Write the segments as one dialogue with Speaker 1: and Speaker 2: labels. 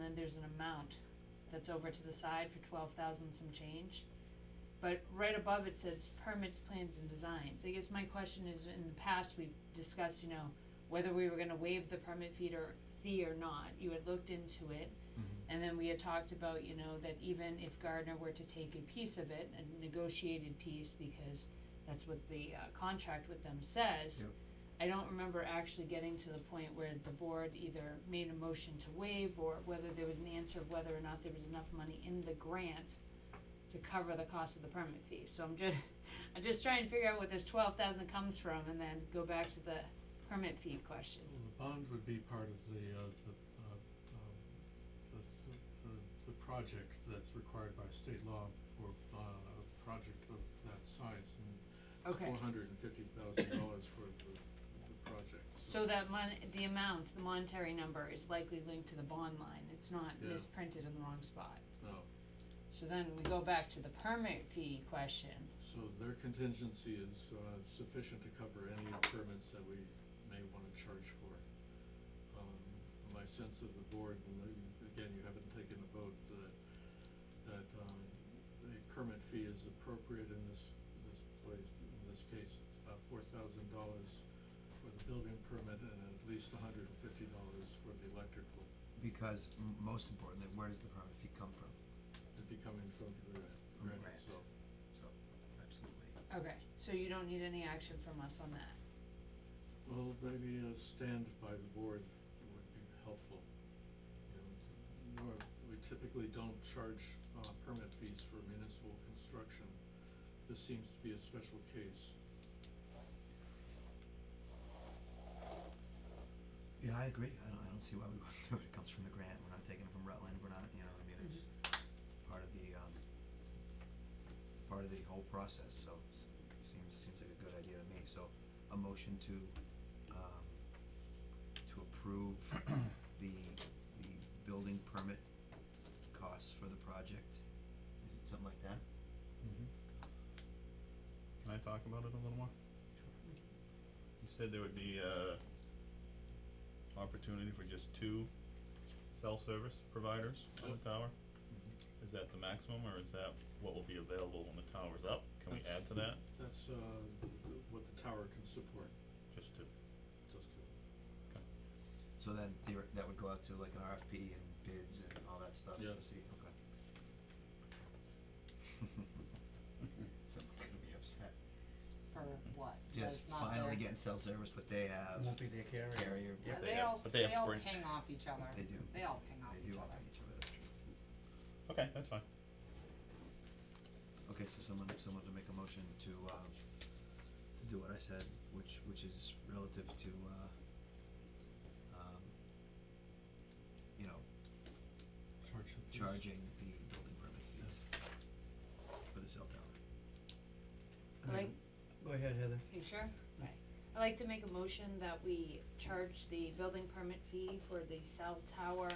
Speaker 1: then there's an amount that's over to the side for twelve thousand some change. But right above it says permits, plans and designs, I guess my question is, in the past, we've discussed, you know, whether we were gonna waive the permit fee or, fee or not, you had looked into it. And then we had talked about, you know, that even if Gardner were to take a piece of it, a negotiated piece, because that's what the uh contract with them says.
Speaker 2: Yep.
Speaker 1: I don't remember actually getting to the point where the board either made a motion to waive or whether there was an answer of whether or not there was enough money in the grant to cover the cost of the permit fee, so I'm just, I'm just trying to figure out what this twelve thousand comes from and then go back to the permit fee question.
Speaker 3: Well, the bond would be part of the, uh, the, uh, um, the, the, the project that's required by state law for, uh, a project of that size, and it's
Speaker 1: Okay.
Speaker 3: four hundred and fifty thousand dollars for the, the project,
Speaker 1: So that mon- the amount, the monetary number is likely linked to the bond line, it's not
Speaker 3: Yeah.
Speaker 1: misprinted in the wrong spot.
Speaker 3: No,
Speaker 1: So then we go back to the permit fee question,
Speaker 3: so their contingency is, uh, sufficient to cover any permits that we may wanna charge for. Um, my sense of the board, and the- again, you haven't taken a vote, that, that, um, a permit fee is appropriate in this, this place, in this case, it's about four thousand dollars for the building permit and at least hundred and fifty dollars for the electrical,
Speaker 2: Because m- most importantly, where does the permit fee come from?
Speaker 3: it'd be coming from the grant,
Speaker 2: From the
Speaker 3: grant
Speaker 2: grant.
Speaker 3: itself.
Speaker 2: So, absolutely.
Speaker 1: okay, so you don't need any action from us on that,
Speaker 3: Well, maybe a stand by the board would be helpful. You know, to- nor, we typically don't charge, uh, permit fees for municipal construction. This seems to be a special case.
Speaker 2: Yeah, I agree. I don't, I don't see why we wouldn't do it. It comes from the grant. We're not taking it from Rutland. We're not, you know, I mean, it's part of the, um, part of the whole process, so s- seems, seems like a good idea to me. So, a motion to, um, to approve the, the building permit costs for the project. Is it something like that?
Speaker 4: Mm-hmm. Can I talk about it a little more? You said there would be uh opportunity for just two cell service providers on the tower? Is that the maximum or is that what will be available when the tower's up? Can we add to that?
Speaker 3: That's, uh, what the tower can support,
Speaker 4: Just two.
Speaker 3: just to,
Speaker 2: So then theor- that would go out to like an RFP and bids and all that stuff
Speaker 3: Yeah.
Speaker 2: to see, okay. Someone's gonna be upset,
Speaker 5: For what?
Speaker 2: just
Speaker 5: That's not
Speaker 2: finally
Speaker 5: their-
Speaker 2: getting cell service, but they have
Speaker 6: Won't be their carrier.
Speaker 2: carrier,
Speaker 4: Yeah,
Speaker 5: Yeah,
Speaker 4: they
Speaker 5: they
Speaker 4: have-
Speaker 5: all,
Speaker 4: but they have
Speaker 5: they all
Speaker 4: Sprint.
Speaker 5: ping off each other.
Speaker 2: They do.
Speaker 5: They all ping off
Speaker 2: they
Speaker 5: each
Speaker 2: do
Speaker 5: other.
Speaker 2: all have each other, that's true.
Speaker 4: Okay, that's fine.
Speaker 2: Okay, so someone, someone to make a motion to, um, to do what I said, which, which is relative to, uh, um, you know,
Speaker 3: charge the fees.
Speaker 2: charging the building permit fees for the cell tower.
Speaker 1: I like,
Speaker 6: Go ahead, Heather.
Speaker 1: you sure? Right. I'd like to make a motion that we charge the building permit fee for the cell tower,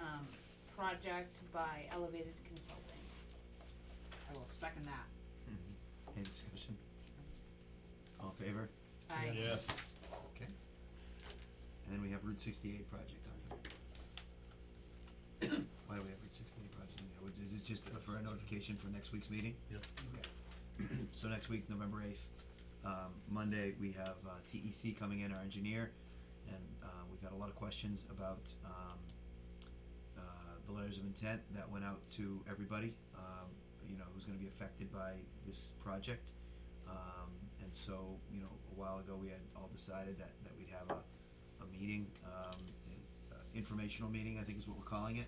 Speaker 1: um, project by Elevated Consulting.
Speaker 5: I will second that.
Speaker 2: Mm-hmm. Any discussion? All in favor?
Speaker 1: I,
Speaker 4: Yes.
Speaker 2: Okay. And then we have Route sixty-eight project on here. Why do we have Route sixty-eight project on here? Which Is it just for a notification for next week's meeting?
Speaker 3: Yep.
Speaker 2: Okay. So next week, November eighth, um, Monday, we have, uh, TEC coming in, our engineer, and, uh, we've got a lot of questions about, um, uh, the letters of intent that went out to everybody, um, you know, who's gonna be affected by this project. Um, and so, you know, a while ago, we had all decided that, that we'd have a, a meeting, um, uh, informational meeting, I think is what we're calling it.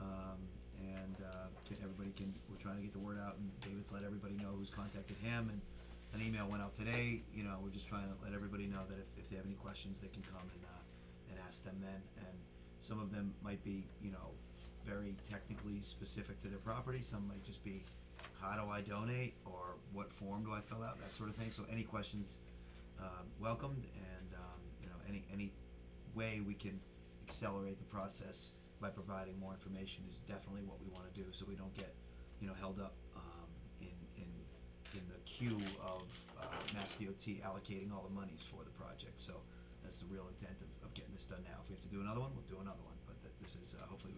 Speaker 2: Um, and, uh, ca- everybody can, we're trying to get the word out, and David's let everybody know who's contacted him, and an email went out today, you know, we're just trying to let everybody know that if, if they have any questions, they can come and, uh, and ask them then, and some of them might be, you know, very technically specific to their property, some might just be, how do I donate, or what form do I fill out, that sort of thing, so any questions, um, welcomed, and, um, you know, any, any way we can accelerate the process by providing more information is definitely what we wanna do, so we don't get, you know, held up, um, in, in in the queue of uh, Mass DOT allocating all the monies for the project. So that's the real intent of, of getting this done now. If we have to do another one, we'll do another one. But that this is uh, hopefully we